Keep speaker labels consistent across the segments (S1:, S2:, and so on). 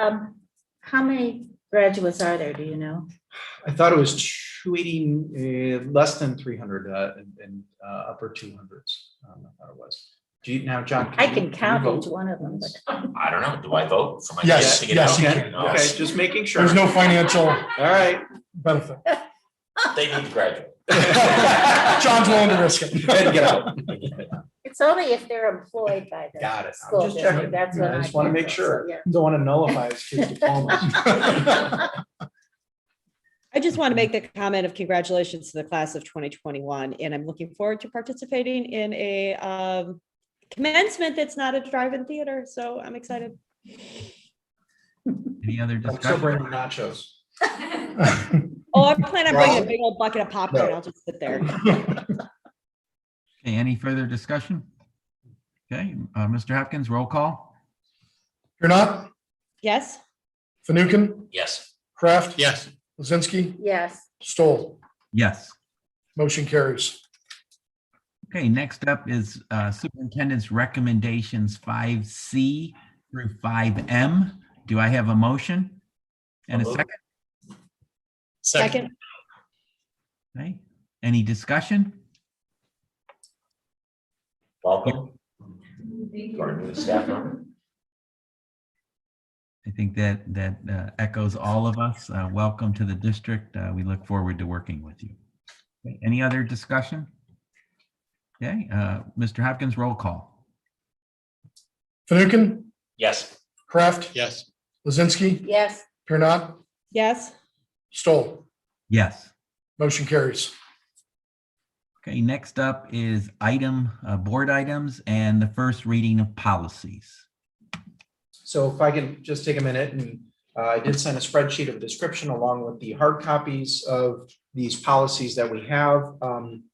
S1: Um, how many graduates are there, do you know?
S2: I thought it was two eighty, uh, less than three hundred, uh, and- and, uh, upper two hundreds. Um, I thought it was. Do you, now, John?
S1: I
S2: you-
S1: can
S2: you
S1: count
S2: vote?
S1: each one of them, but
S3: I don't know. Do I vote for my?
S2: Yes,
S3: kids to get
S2: Yes,
S3: out?
S2: you can.
S3: No.
S2: Okay, just making sure.
S4: There's no financial
S2: All right.
S4: benefit.
S3: They need to graduate.
S4: John's willing to risk it.
S2: Ed, get out.
S1: it's only if they're employed by the
S2: Got it. I'm
S1: school
S2: just checking.
S1: district, that's what
S2: I
S1: I.
S2: just wanna
S1: can
S2: make
S1: do, so,
S2: sure.
S1: yeah.
S2: Don't want to nullify his kid's diplomas.
S5: I just want to make the comment of congratulations to the class of 2021, and I'm looking forward to participating in a um, commencement that's not a drive-in theater, so I'm excited.
S6: Any other
S2: I'm still
S6: discussion?
S2: bringing nachos.
S5: Oh, I plan on bringing
S4: Well-
S5: a big old bucket of popcorn, I'll just sit there.
S6: Okay, any further discussion? Okay, uh, Mr. Hopkins, roll call?
S4: You're not?
S5: Yes?
S4: Fanukin?
S3: Yes.
S4: Kraft?
S3: Yes.
S4: Lizinski?
S1: Yes,
S4: Stoll?
S6: Yes.
S4: Motion carries.
S6: Okay, next up is uh, Superintendent's Recommendations 5C through 5M. Do I have a motion? And a
S3: Hello?
S6: second?
S5: Second.
S6: Okay, Any discussion?
S3: Welcome. To our new staff member.
S6: I think that, that uh, echoes all of us. Uh, Welcome to the district. Uh, We look forward to working with you. Okay, Any other discussion? Okay, uh, Mr. Hopkins, roll call?
S4: Fanukin?
S3: Yes.
S4: Kraft?
S3: Yes.
S4: Lizinski?
S1: yes,
S4: You're not?
S5: Yes?
S4: Stoll?
S6: Yes.
S4: Motion carries.
S6: Okay, next up is item, uh, board items and the first reading of policies.
S2: So if I can just take a minute and uh, I did send a spreadsheet of description along with the hard copies of these policies that we have. Um,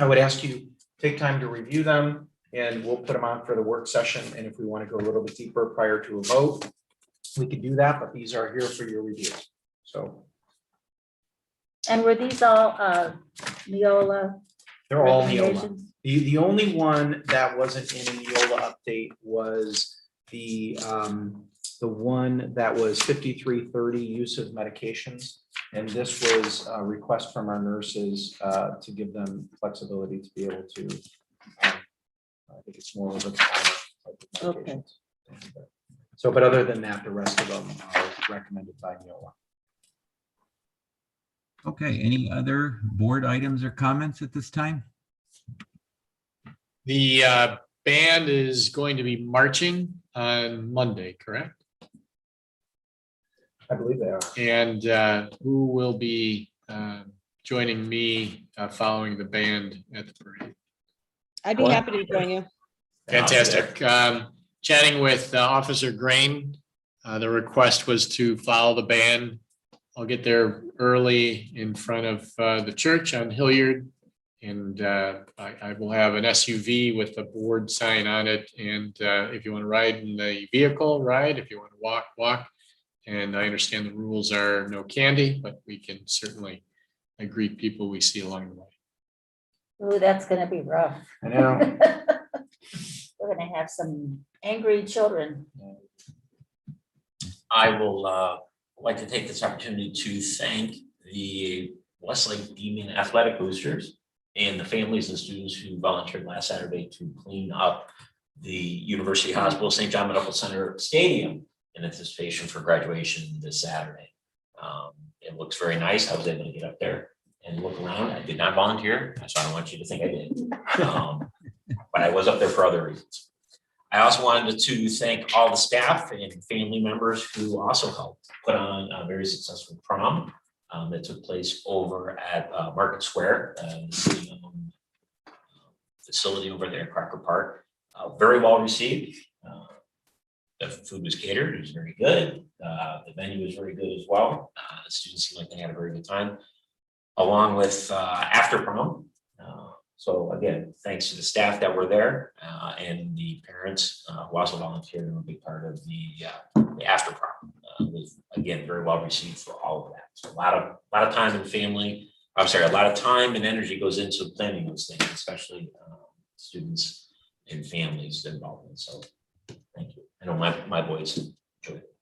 S2: I would ask you, take time to review them and we'll put them on for the work session. And if we want to go a little bit deeper prior to a vote, we could do that, but these are here for your review. So
S1: and were these all, uh, Neola
S2: they're all Neola.
S1: recommendations?
S2: The, the only one that wasn't in a Neola update was the, um, the one that was fifty-three thirty use of medications. And this was a request from our nurses, uh, to give them flexibility to be able to. um, I think it's more of a. time type of
S1: Okay.
S2: medications. So, but other than that, the rest of them are recommended by Neola.
S6: Okay, any other board items or comments at this time?
S7: The uh, band is going to be marching on Monday, correct?
S2: I believe they are.
S7: And uh, who will be uh, joining me uh, following the band at the parade?
S5: I'd be happy to join you.
S7: Fantastic. Um, Chatting with uh, Officer Grain, uh, the request was to follow the band. I'll get there early in front of uh, the church on Hilliard. And uh, I I will have an SUV with a board sign on it. And uh, if you want to ride in the vehicle, ride. If you want to walk, walk. And I understand the rules are no candy, but we can certainly uh, greet people we see along the way.
S1: Ooh, that's gonna be rough.
S2: I know.
S1: We're gonna have some angry children.
S3: I will uh, like to take this opportunity to thank the Westlake Demon Athletic Boosters and the families and students who volunteered last Saturday to clean up the University Hospital St. John Medical Center Stadium in anticipation for graduation this Saturday. Um, It looks very nice. I was able to get up there and look around. I did not volunteer, so I don't want you to think I did. Um, But I was up there for other reasons. I also wanted to thank all the staff and family members who also helped put on a very successful prom um, that took place over at uh, Market Square, uh, the city-owned facility over there, in Cracker Park. Uh, Very well received. Uh, The food was catered, it was very good. Uh, The venue was very good as well. Uh, The Students seemed like they had a very good time, along with uh, after prom, uh, So again, thanks to the staff that were there uh, and the parents uh, who also volunteered and were a big part of the uh, the after prom. uh, Was again, very well received for all of that. So a lot of, a lot of time and family, I'm sorry, a lot of time and energy goes into planning those things, especially um, students and families involved. So thank you. I know my, my boys enjoyed it.